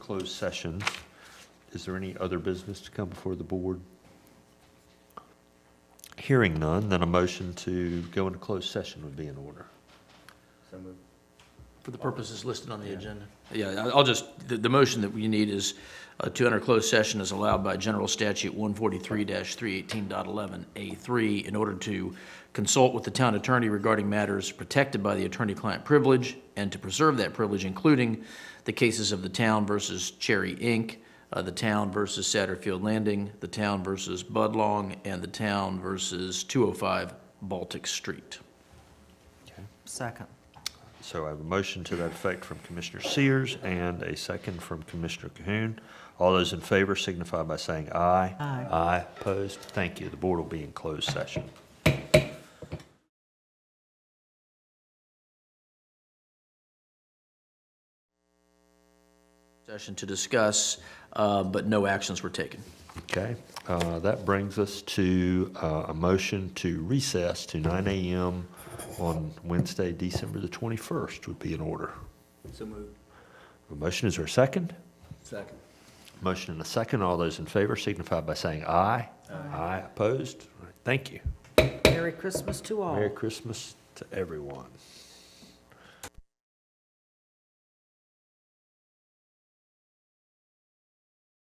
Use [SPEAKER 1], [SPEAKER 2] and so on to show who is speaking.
[SPEAKER 1] closed session. Is there any other business to come before the board? Hearing none, then a motion to go into closed session would be in order.
[SPEAKER 2] For the purposes listed on the agenda. Yeah, I- I'll just, the, the motion that we need is uh, to enter closed session as allowed by General Statute 143-318.11A3 in order to consult with the town attorney regarding matters protected by the attorney-client privilege and to preserve that privilege, including the cases of the town versus Cherry Inc., uh, the town versus Satterfield Landing, the town versus Budlong, and the town versus 205 Baltic Street.
[SPEAKER 3] Second.
[SPEAKER 1] So I have a motion to that effect from Commissioner Sears and a second from Commissioner Cahoon. All those in favor signify by saying aye.
[SPEAKER 3] Aye.
[SPEAKER 1] Aye, opposed, thank you. The board will be in closed session.
[SPEAKER 2] session to discuss, uh, but no actions were taken.
[SPEAKER 1] Okay, uh, that brings us to uh, a motion to recess to 9 AM on Wednesday, December the 21st would be in order.
[SPEAKER 4] So moved.
[SPEAKER 1] A motion, is there a second?
[SPEAKER 4] Second.
[SPEAKER 1] Motion and a second. All those in favor signify by saying aye. Aye, opposed? All right, Thank you.
[SPEAKER 3] Merry Christmas to all.
[SPEAKER 1] Merry Christmas to everyone.